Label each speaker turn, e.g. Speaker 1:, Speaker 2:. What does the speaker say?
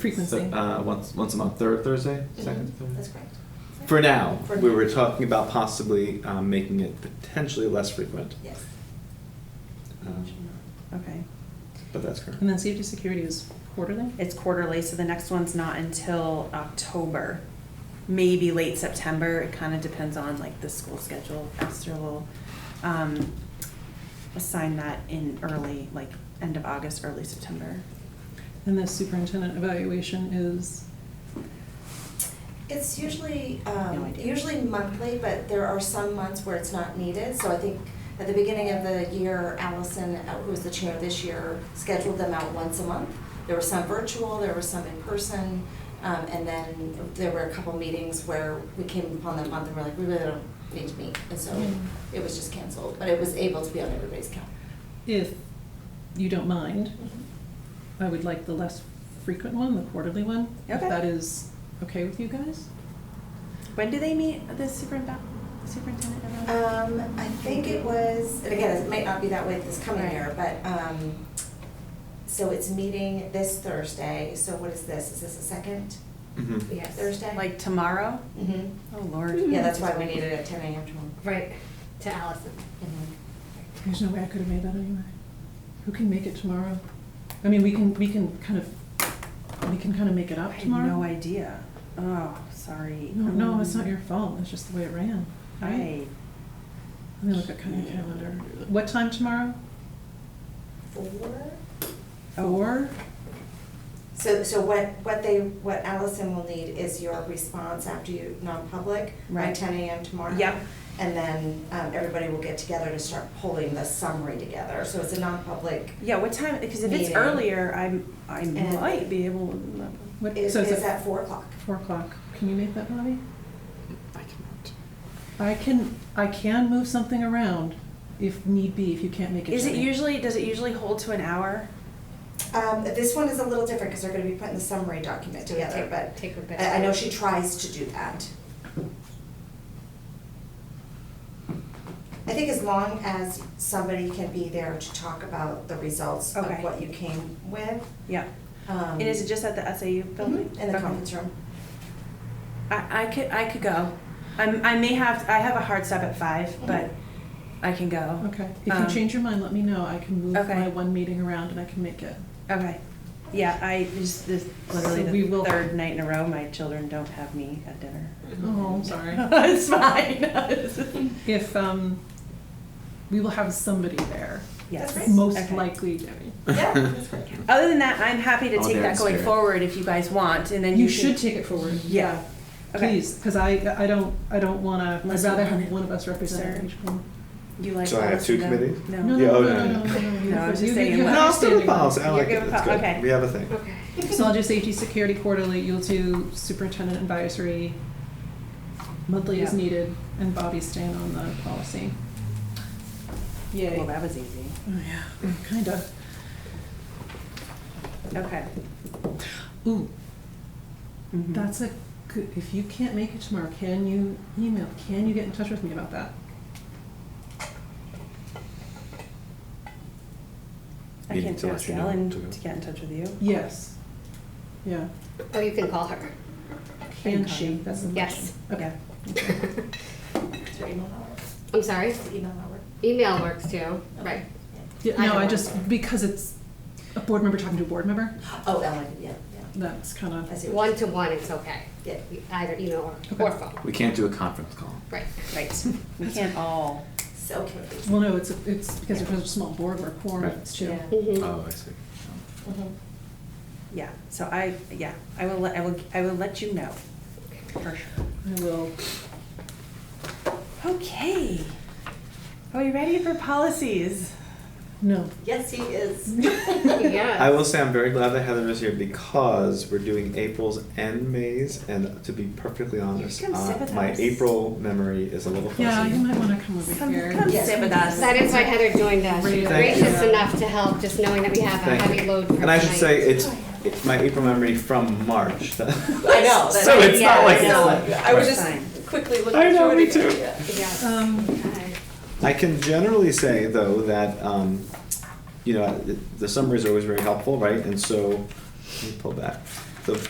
Speaker 1: Frequency.
Speaker 2: So, uh, once once a month, third Thursday, second Thursday.
Speaker 3: Mm-hmm. That's correct.
Speaker 2: For now,
Speaker 3: For
Speaker 2: we
Speaker 3: now.
Speaker 2: were talking about possibly um, making it potentially less frequent,
Speaker 3: Yes.
Speaker 2: um,
Speaker 4: Okay,
Speaker 2: but that's current.
Speaker 1: And then safety security is quarterly?
Speaker 4: it's quarterly, so the next one's not until October, maybe late September, it kind of depends on like the school schedule, Esther will, um, assign that in early, like, end of August, early September.
Speaker 1: And the superintendent evaluation is,
Speaker 3: It's usually,
Speaker 4: No
Speaker 3: um,
Speaker 4: idea.
Speaker 3: usually monthly, but there are some months where it's not needed. So I think at the beginning of the year, Allison, uh, who was the chair this year, scheduled them out once a month. There were some virtual, there were some in person, um, and then there were a couple meetings where we came upon that month and we're like, we really don't need to meet. And so
Speaker 4: Mm-hmm.
Speaker 3: it was just canceled, but it was able to be on everybody's calendar.
Speaker 1: if you don't mind,
Speaker 4: Mm-hmm.
Speaker 1: I would like the less frequent one, the quarterly one. If
Speaker 4: Okay.
Speaker 1: that is okay with you guys?
Speaker 4: When do they meet, the superintendent, superintendent? everyone?
Speaker 1: Uh,
Speaker 3: Um, I think it was, and again, it might not be that way this coming
Speaker 4: Right.
Speaker 3: year, but, um, so it's meeting this Thursday, so what is this, is this the second?
Speaker 2: Mhm.
Speaker 3: We have Thursday?
Speaker 4: Like tomorrow?
Speaker 3: hmm
Speaker 4: Oh, Lord.
Speaker 1: Mm-hmm.
Speaker 3: yeah, that's why we needed it at ten AM tomorrow.
Speaker 5: Right, to Allison.
Speaker 1: There's no way I could have made that anyway. Who can make it tomorrow? I mean, we can, we can kind of, we can kind of make it
Speaker 4: I
Speaker 1: up
Speaker 4: had
Speaker 1: tomorrow.
Speaker 4: no idea. Oh, sorry.
Speaker 1: No, no, it's not
Speaker 4: Um,
Speaker 1: your fault, it's just the way it ran, right?
Speaker 4: Right.
Speaker 1: Let me look at kind of calendar. What time tomorrow?
Speaker 3: Four?
Speaker 1: Four?
Speaker 4: Oh.
Speaker 3: So, so what, what they, what Allison will need is your response after you, non-public, by
Speaker 4: Right.
Speaker 3: ten AM tomorrow.
Speaker 4: Yep.
Speaker 3: And then, um, everybody will get together to start pulling the summary together, so it's a non-public.
Speaker 4: Yeah, what time, because if it's
Speaker 3: Meeting.
Speaker 4: earlier, I'm, I
Speaker 3: And-
Speaker 4: might be able to.
Speaker 1: What-
Speaker 3: Is,
Speaker 1: so it's
Speaker 3: is
Speaker 1: at
Speaker 3: at four o'clock.
Speaker 1: Four o'clock. Can you make that, Bobby?
Speaker 2: I cannot.
Speaker 1: I can, I can move something around if need be, if you can't make it.
Speaker 4: Is it
Speaker 1: Jenny.
Speaker 4: usually, does it usually hold to an hour?
Speaker 3: Um, this one is a little different because they're gonna be putting the summary document
Speaker 5: So we
Speaker 3: together,
Speaker 5: take-
Speaker 3: but
Speaker 5: take Rebecca.
Speaker 3: I, I know she tries to do that. I think as long as somebody can be there to talk about the results of
Speaker 4: Okay.
Speaker 3: what you came with.
Speaker 4: Yeah.
Speaker 3: um, mm-hmm,
Speaker 4: And is it just at the SAU building?
Speaker 3: In the
Speaker 4: Okay.
Speaker 3: conference room.
Speaker 4: I, I could, I could go. I'm, I may have, I have a hard stop at five,
Speaker 3: Mm-hmm.
Speaker 4: but I can go.
Speaker 1: Okay. If you
Speaker 4: Um,
Speaker 1: change your mind, let me know. I can move
Speaker 4: okay.
Speaker 1: my one meeting around and I can make it.
Speaker 4: Okay. Yeah, I just, this, literally
Speaker 1: So we
Speaker 4: the
Speaker 1: will-
Speaker 4: third night in a row, my children don't have me at dinner.
Speaker 1: Oh, I'm sorry.
Speaker 4: It's fine.
Speaker 1: If, um, we will have somebody there,
Speaker 4: Yes.
Speaker 3: That's
Speaker 1: most
Speaker 4: Okay.
Speaker 1: likely Debbie.
Speaker 3: Yeah, that's great.
Speaker 4: Other than that, I'm happy to
Speaker 2: Oh,
Speaker 4: take
Speaker 2: they're in
Speaker 4: that going
Speaker 2: spirit.
Speaker 4: forward if you guys want, and then
Speaker 1: You
Speaker 4: you can-
Speaker 1: should take it forward.
Speaker 4: Yeah. Okay.
Speaker 1: Please, because I, I don't, I don't wanna, I'd
Speaker 4: Unless
Speaker 1: rather
Speaker 4: you want
Speaker 1: have
Speaker 4: it.
Speaker 1: one of us represent
Speaker 4: Sure.
Speaker 1: each one.
Speaker 4: You like
Speaker 2: So I have
Speaker 4: Alice and
Speaker 2: two
Speaker 4: Doug?
Speaker 2: committees?
Speaker 4: No.
Speaker 1: No,
Speaker 2: Yeah,
Speaker 1: no,
Speaker 2: oh,
Speaker 1: no,
Speaker 2: no,
Speaker 1: no,
Speaker 2: no.
Speaker 1: no, no.
Speaker 4: No,
Speaker 1: You-
Speaker 4: I was just
Speaker 1: you-
Speaker 4: saying,
Speaker 1: you
Speaker 4: like-
Speaker 1: have
Speaker 2: No, still the
Speaker 1: standing
Speaker 2: policy. I
Speaker 4: You're
Speaker 2: like it.
Speaker 4: good with
Speaker 2: It's
Speaker 4: pol-
Speaker 2: good.
Speaker 4: okay.
Speaker 2: We have a thing.
Speaker 5: Okay.
Speaker 1: So I'll do safety security quarterly, you'll do superintendent advisory monthly as
Speaker 4: Yeah.
Speaker 1: needed, and Bobby's staying on the policy.
Speaker 4: Well,
Speaker 1: Yay.
Speaker 4: that was easy.
Speaker 1: Oh, yeah, kinda.
Speaker 4: Okay.
Speaker 1: Ooh,
Speaker 4: Mhm.
Speaker 1: that's a good, if you can't make it tomorrow, can you email, can you get in touch with me about that?
Speaker 4: I
Speaker 2: Meeting
Speaker 4: can
Speaker 2: to let
Speaker 4: ask
Speaker 2: you know
Speaker 4: Ellen
Speaker 2: to go.
Speaker 4: to get in touch with you.
Speaker 1: Yes. Yeah,
Speaker 5: Or Oh, you can call her.
Speaker 1: can
Speaker 4: call
Speaker 1: she,
Speaker 4: you.
Speaker 1: that's the question.
Speaker 5: Yes.
Speaker 1: Okay.
Speaker 3: Is your email not work?
Speaker 5: I'm sorry,
Speaker 3: Is the email not work?
Speaker 5: email works too, right.
Speaker 1: Yeah,
Speaker 5: I
Speaker 1: no,
Speaker 5: don't
Speaker 1: I
Speaker 5: know.
Speaker 1: just, because it's a board member talking to a board member,
Speaker 3: Oh, Ellen, yeah, yeah.
Speaker 1: that's kinda.
Speaker 3: I see. what
Speaker 5: One to one, it's okay,
Speaker 3: you- Yeah.
Speaker 5: either email
Speaker 1: Okay.
Speaker 5: or, or phone,
Speaker 2: We can't do a conference call.
Speaker 5: right.
Speaker 4: Right. We can't all.
Speaker 3: So, okay.
Speaker 1: Well, no, it's, it's because it's a small board, we're quorum,
Speaker 2: Right.
Speaker 1: it's two.
Speaker 3: Yeah.
Speaker 5: Mhm.
Speaker 2: Oh, I see.
Speaker 3: Mhm.
Speaker 4: Yeah. So I. Yeah. I will. Let, I will. I will let you know. For sure.
Speaker 1: I will.
Speaker 4: Okay. Are we ready for policies?
Speaker 1: No.
Speaker 3: Yes, he is.
Speaker 5: Yes.
Speaker 2: I will say I'm very glad that Heather is here because we're doing April's and May's, and to be perfectly honest,
Speaker 4: come sit
Speaker 2: uh,
Speaker 4: with
Speaker 2: my
Speaker 4: us.
Speaker 2: April memory is a little fuzzy.
Speaker 1: Yeah, you might want to come over
Speaker 4: Come,
Speaker 1: here.
Speaker 4: come
Speaker 3: Yes.
Speaker 4: sit with us.
Speaker 5: That is why Heather joined us, she was
Speaker 2: Thank you.
Speaker 5: gracious enough to help, just knowing that we have a
Speaker 2: Thank you.
Speaker 5: heavy load for tonight.
Speaker 2: And I should say, it's, it's my April memory from March.
Speaker 3: I know. that-
Speaker 2: So it's
Speaker 3: yeah,
Speaker 2: not like
Speaker 3: I
Speaker 2: it's
Speaker 3: know.
Speaker 2: like-
Speaker 3: I was
Speaker 4: Right.
Speaker 3: just quickly looking
Speaker 2: I know,
Speaker 3: through it
Speaker 2: me
Speaker 3: again,
Speaker 2: too.
Speaker 3: yeah.
Speaker 5: Yes.
Speaker 1: Um,
Speaker 5: Okay.
Speaker 2: I can generally say, though, that, um, you know, the- the summaries are always very helpful, right? And so, let me pull back.